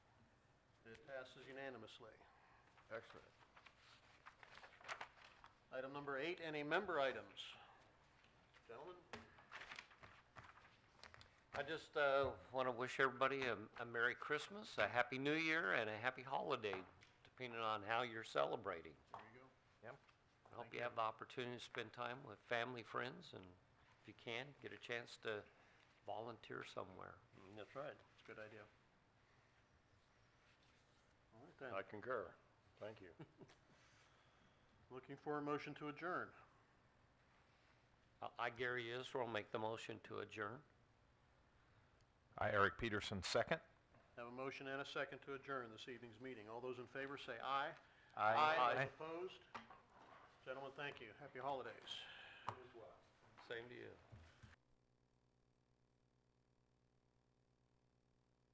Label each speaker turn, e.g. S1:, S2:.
S1: passes unanimously.
S2: Excellent.
S1: Item number eight, any member items? Gentlemen?
S3: I just want to wish everybody a a Merry Christmas, a Happy New Year, and a Happy Holiday, depending on how you're celebrating.
S1: There you go.
S3: I hope you have the opportunity to spend time with family, friends, and if you can, get a chance to volunteer somewhere.
S2: Mm, That's right.
S1: It's a good idea. All right
S2: I
S1: then,
S2: concur. Thank you.
S1: looking for a motion to adjourn.
S3: I- I, Gary Israel, make the motion to adjourn.
S4: I, Eric Peterson, second.
S1: Have a motion and a second to adjourn this evening's meeting. All those in favor say aye.
S4: Aye.
S1: Aye, opposed? Gentlemen, thank you. Happy holidays.
S3: Same to you.